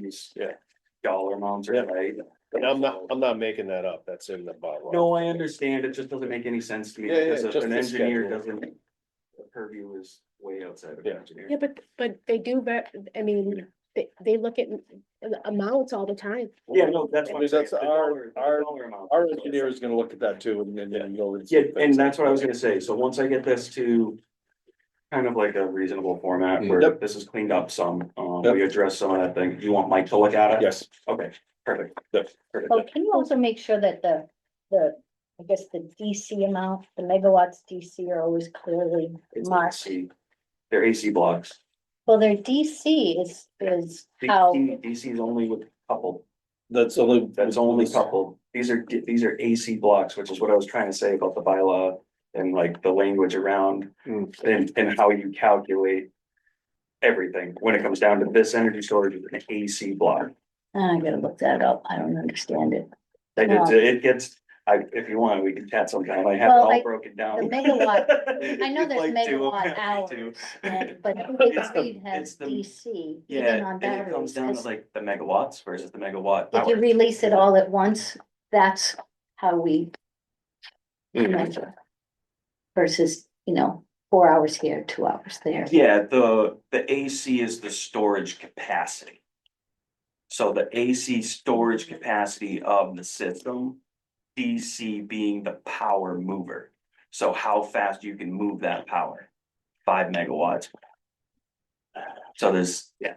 these. Yeah. Dollar amounts Yeah. are right. And I'm not, I'm not making that up, that's in the bottom. No, I understand, it just doesn't make any sense to me, Yeah, yeah, because if just an the engineer schedule. doesn't. The purview is way outside of Yeah. an engineer. Yeah, but, but they do, but, I mean, they, they look at the amounts all the time. Yeah, no, that's why. Because that's our- our- Our engineer is gonna look at that too, and then, then you know. Yeah, and that's what I was gonna say, so once I get this to. Kind of like a reasonable format where Mm. Yep. this is cleaned up some, um, Yep. we address some of that thing, you want Mike to look at it? Yes. Okay, perfect. Yep. Perfect. Well, Oh, can you also make sure that the, the, I guess the DC amount, the megawatts DC are always clearly It's marked? AC. They're AC blocks. Well, their DC is, is how, DC, DC is only with coupled, That's only. that's only coupled. These are, these are AC blocks, which is what I was trying to say about the bylaw and like the language around Hmm. and, and how you calculate everything. When it comes down to this energy storage, is an AC block. ah, I gotta look that up, I don't understand it. Like it's, No. it gets, I, if you want, we can chat sometime. I have it Well, all I- broken The down. megawatt, I know We'd there's like to, megawatt I'd like to. hours, and- but Baker It's the- Reed it's has the- DC, even Yeah, on and it comes batteries. down to 'cause like the megawatts versus the megawatt If you hour. release it all at once, that's how we Hmm. measure. Versus, you know, four hours here, two hours there. Yeah, the, the AC is the storage capacity. So the AC storage capacity of the system, DC being the power mover. So how fast you can move that power, five megawatts. So there's, yeah,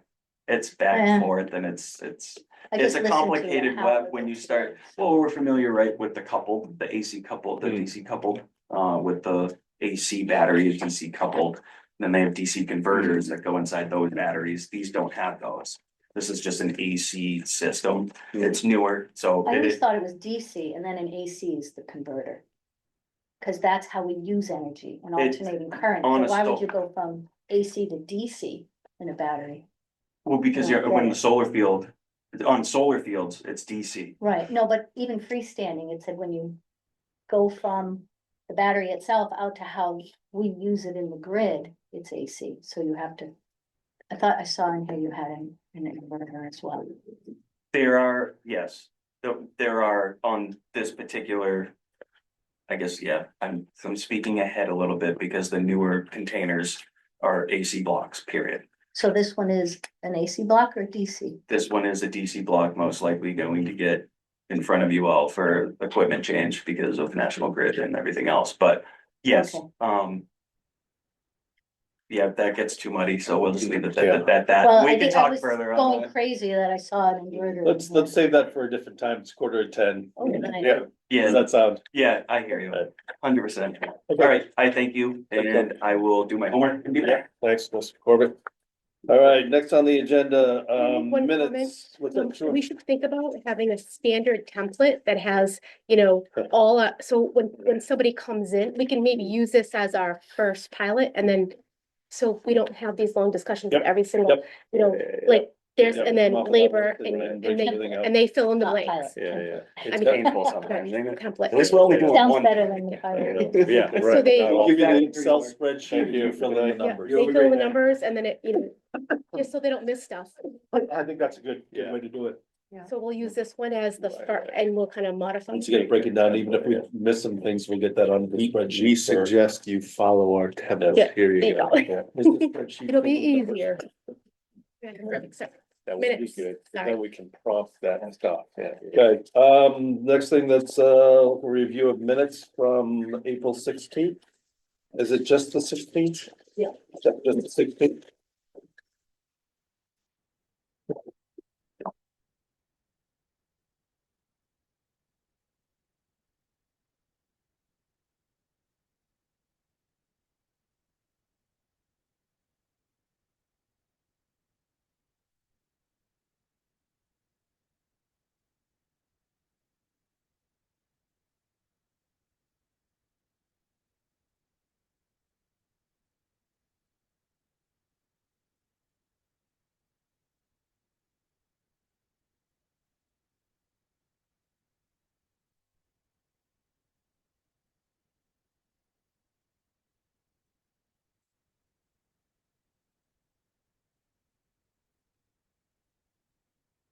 it's back and Yeah. forth and it's, it's. I It's just a listened to complicated how web it when you looks. start, well, we're familiar, right, with the coupled, the AC coupled, the Mm. DC coupled, uh, with the AC battery is DC coupled. Then they have DC converters that go inside those batteries. These don't have those. This is just an AC system. It's newer, so I it always is, thought it was DC and then an AC is the converter. Cause that's how we use energy and It's alternating current. So honest why would though. you go from AC to DC in a battery? well, because you're, when the solar field, on solar fields, it's DC. Right, no, but even freestanding, it said when you go from the battery itself out to how we use it in the grid, it's AC, so you have to. I thought I saw in here you had an, an inverter as well. There are, yes, there, there are on this particular. I guess, yeah, I'm, I'm speaking ahead a little bit because the newer containers are AC blocks, period. So this one is an AC block or DC? This one is a DC block most likely going to get in front of you all for equipment change because of National Grid and everything else, but yes, Okay. um. Yeah, that gets too muddy, so we'll just leave it Yeah. at that, that, Well, Uh, we I can think I talk was further on going that. crazy that I saw an inverter. in Let's, here. let's save that for a different time, it's quarter to ten. Oh, nice. Yeah, Yeah, does that sound? Yeah, I hear you, Okay. hundred percent. All Okay. right, I thank you and I will do my homework and be Yeah, there. Thanks, Mr. Corbett. All right, next on the agenda, um, One comment. minutes. What's So that? Sure. We should think about having a standard template that has, you know, all, uh, so when, when somebody comes in, we can maybe use this as our first pilot and then. So we don't have these long discussions with Yep, every single, you know, like there's, Yeah, and then muffle that labor up and, then and break they, everything up. and they fill in the Not blanks. pilot. Yeah, yeah. It's mean- painful sometimes, isn't it? Template. At least we're only doing Sounds one. better than the fire. Yeah, So right. they- I'll Give you Yeah. an Excel spreadsheet, you fill in the Yeah, numbers. they fill the numbers and then it, you know, just so they don't miss stuff. I think that's a good, good Yeah. way to do it. So we'll use this one as the Right, fir- right. and we'll kind of modify. Once again, break it down, even if we miss some things, we'll get that on the We, spreadsheet. we for- suggest you follow our Yeah, template, here there you you go. go. Yeah, it's a spreadsheet It'll for be the numbers. easier. Except- That would be Minutes, good, sorry. then we can prompt that and stuff, yeah. Okay, um, next thing that's a review of minutes from April sixteenth. Is it just the sixteenth? Yeah. Just the sixteenth?